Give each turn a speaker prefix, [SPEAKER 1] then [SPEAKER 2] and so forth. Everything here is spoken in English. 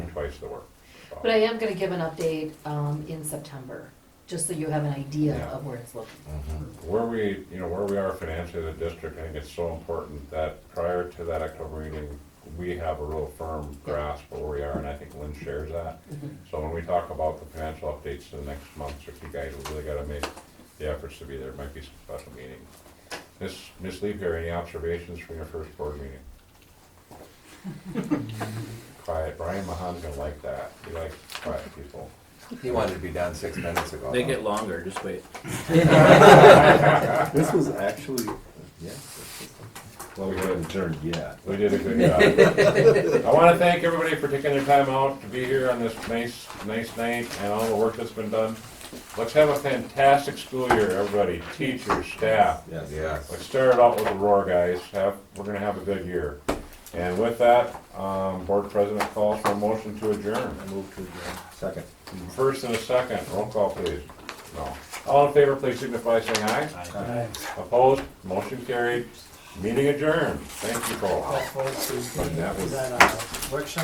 [SPEAKER 1] finish the work. So,
[SPEAKER 2] But I am gonna give an update, um, in September, just so you have an idea
[SPEAKER 1] Yeah.
[SPEAKER 2] of where it's looking.
[SPEAKER 1] mm-hmm. Where we, you know, where we are financially as a district, I think it's so important that prior to that October meeting, we have a real firm grasp of where we are, and I think Lynn shares that.
[SPEAKER 2] Mm-hmm.
[SPEAKER 1] So when we talk about the financial updates to the next month, so if you guys really gotta make the efforts to be there, it might be some special meeting. Miss, Miss Lee Perry, any observations from your first board meeting? Quiet, Brian Mahan's gonna like that, he likes quiet people.
[SPEAKER 3] He wanted to be down six minutes ago.
[SPEAKER 4] They get longer, just wait.
[SPEAKER 5] This was actually, yes,
[SPEAKER 1] Well,
[SPEAKER 5] we
[SPEAKER 1] we
[SPEAKER 5] haven't
[SPEAKER 1] did,
[SPEAKER 5] adjourned yet.
[SPEAKER 1] we did a good job. I wanna thank everybody for taking their time out to be here on this nice, nice night and all the work that's been done. Let's have a fantastic school year, everybody, teachers, staff.
[SPEAKER 5] Yes.
[SPEAKER 3] Yes.
[SPEAKER 1] Let's start it off with a roar, guys. Have, we're gonna have a good year. And with that, um, board president calls for a motion to adjourn.
[SPEAKER 5] Second.
[SPEAKER 1] First and a second, roll call please. No. All in favor, please signify by saying aye. Opposed, motion carried, meeting adjourned. Thank you, folks.
[SPEAKER 6] That
[SPEAKER 1] But that was-
[SPEAKER 6] uh, workshop